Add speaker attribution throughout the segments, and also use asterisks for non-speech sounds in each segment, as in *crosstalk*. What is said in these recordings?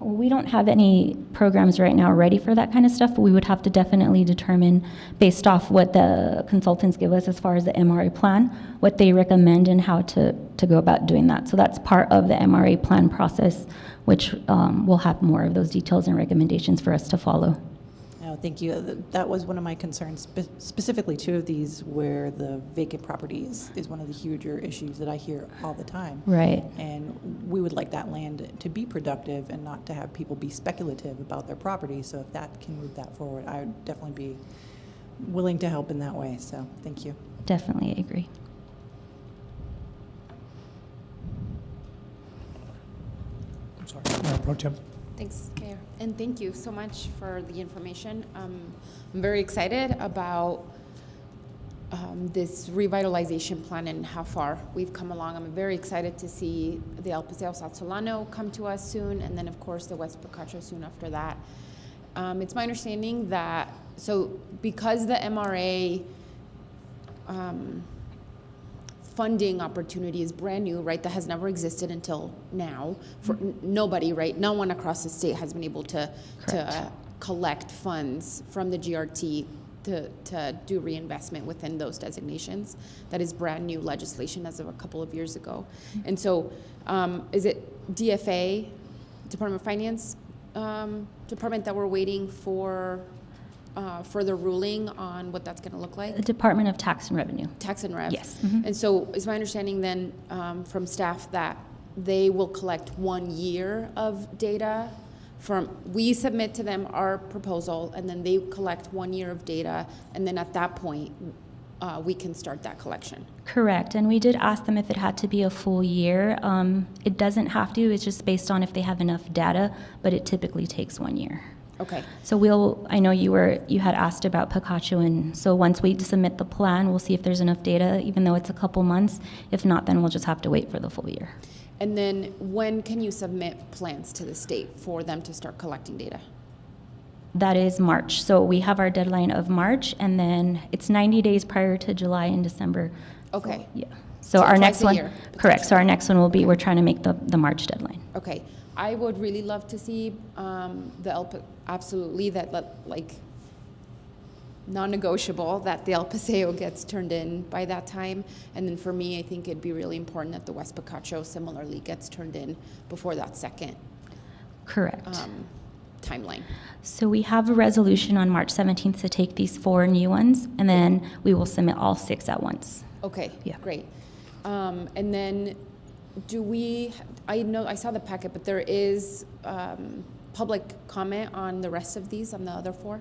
Speaker 1: We don't have any programs right now ready for that kind of stuff, but we would have to definitely determine, based off what the consultants give us as far as the MRA plan, what they recommend and how to, to go about doing that. So that's part of the MRA plan process, which um, will have more of those details and recommendations for us to follow.
Speaker 2: No, thank you. Th- That was one of my concerns, spe- specifically two of these where the vacant properties is one of the huger issues that I hear all the time.
Speaker 1: Right.
Speaker 2: And we would like that land to be productive and not to have people be speculative about their property. So if that can move that forward, I would definitely be willing to help in that way. So thank you.
Speaker 1: Definitely agree.
Speaker 3: I'm sorry, Mayor Pro Tem.
Speaker 4: Thanks, Mayor. And thank you so much for the information. Um, I'm very excited about um, this revitalization plan and how far we've come along. I'm very excited to see the El Paseo South Solano come to us soon, and then, of course, the West Picacho soon after that. Um, It's my understanding that, so because the MRA um, funding opportunity is brand new, right? That has never existed until now for n- nobody, right? No one across the state has been able to to uh, collect funds from the GRT to to do reinvestment within those designations. That is brand new legislation as of a couple of years ago, and so um, is it DFA, Department of Finance um, department that we're waiting for. Uh, further ruling on what that's going to look like?
Speaker 1: The Department of Tax and Revenue.
Speaker 4: tax and rev.
Speaker 1: Yes.
Speaker 4: And so is my understanding then um, from staff that they will collect one year of data from, we submit to them our proposal, and then they collect one year of data, and then at that point, uh, we can start that collection.
Speaker 1: Correct, and we did ask them if it had to be a full year. Um, It doesn't have to, it's just based on if they have enough data, but it typically takes one year.
Speaker 4: Okay,
Speaker 1: So we'll, I know you were, you had asked about Picacho, and so once we submit the plan, we'll see if there's enough data, even though it's a couple months. If not, then we'll just have to wait for the full year.
Speaker 4: and then when can you submit plans to the state for them to start collecting data?
Speaker 1: That is March, so we have our deadline of March, and then it's 90 days prior to July and December.
Speaker 4: Okay,
Speaker 1: Yeah, so
Speaker 4: So
Speaker 1: our
Speaker 4: twice
Speaker 1: next
Speaker 4: a
Speaker 1: one.
Speaker 4: year,
Speaker 1: Correct, so our next one will be, we're trying to make the, the March deadline.
Speaker 4: Okay, I would really love to see um, the, El Pa- absolutely, that, that, like, non-negotiable that the El Paseo gets turned in by that time. And then for me, I think it'd be really important that the West Picacho similarly gets turned in before that second
Speaker 1: Correct.
Speaker 4: um, timeline.
Speaker 1: So we have a resolution on March 17th to take these four new ones, and then we will submit all six at once.
Speaker 4: Okay,
Speaker 1: Yeah.
Speaker 4: great. Um, And then, do we, I know, I saw the packet, but there is um, public comment on the rest of these, on the other four?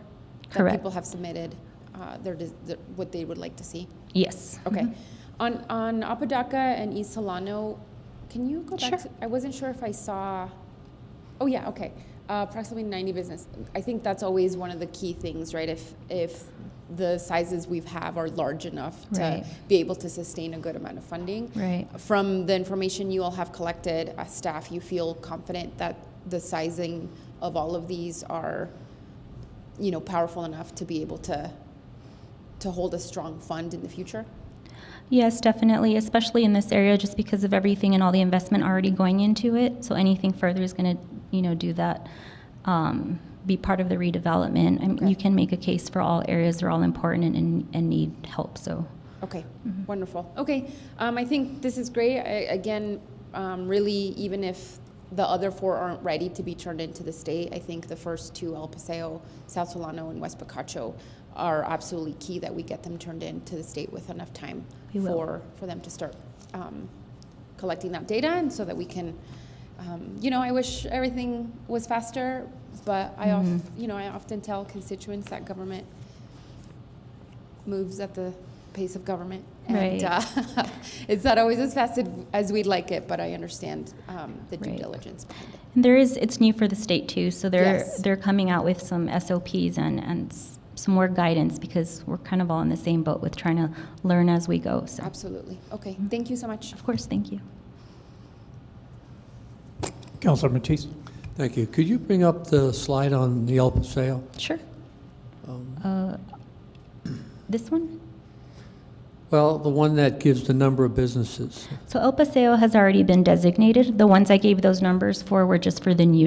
Speaker 1: Correct.
Speaker 4: That people have submitted uh, their, des- their- what they would like to see?
Speaker 1: Yes. Mm-hmm.
Speaker 4: Okay. On, on Apodaca and East Solano, can you go
Speaker 1: Sure.
Speaker 4: back to, I wasn't sure if I saw, oh yeah, okay. Uh, approximately 90 business. I think that's always one of the key things, right? If, if the sizes we have are large enough to
Speaker 1: Right.
Speaker 4: be able to sustain a good amount of funding.
Speaker 1: Right.
Speaker 4: From the information you all have collected, as staff, you feel confident that the sizing of all of these are, you know, powerful enough to be able to, to hold a strong fund in the future?
Speaker 1: Yes, definitely, especially in this area, just because of everything and all the investment already going into it. So anything further is going to, you know, do that, um, be part of the redevelopment. I mean,
Speaker 4: Okay.
Speaker 1: you can make a case for all areas, they're all important and- and, and need help, so.
Speaker 4: Okay, wonderful. Mm-hmm. Okay, um, I think this is great. I, again, um, really, even if the other four aren't ready to be turned into the state, I think the first two, El Paseo, South Solano, and West Picacho, are absolutely key that we get them turned into the state with enough time
Speaker 1: We will.
Speaker 4: for for them to start um, collecting that data, and so that we can. Um, you know, I wish everything was faster, but I, of, you know, I often tell constituents that government moves at the pace of government. And
Speaker 1: Right.
Speaker 4: uh, *laughs* it's not always as fast as- as we'd like it, but I understand um, the due
Speaker 1: Right.
Speaker 4: diligence behind it.
Speaker 1: And there is, it's new for the state too, so they're,
Speaker 4: Yes.
Speaker 1: they're coming out with some SOPs and, and s- some more guidance because we're kind of all in the same boat with trying to learn as we go, so.
Speaker 4: Absolutely. Okay, thank you so much.
Speaker 1: Of course, thank you.
Speaker 3: Counselor Matisse.
Speaker 5: Thank you. Could you bring up the slide on the El Paseo?
Speaker 1: Sure. Uh, This one?
Speaker 5: Well, the one that gives the number of businesses.
Speaker 1: So El Paseo has already been designated. The ones I gave those numbers for were just for the new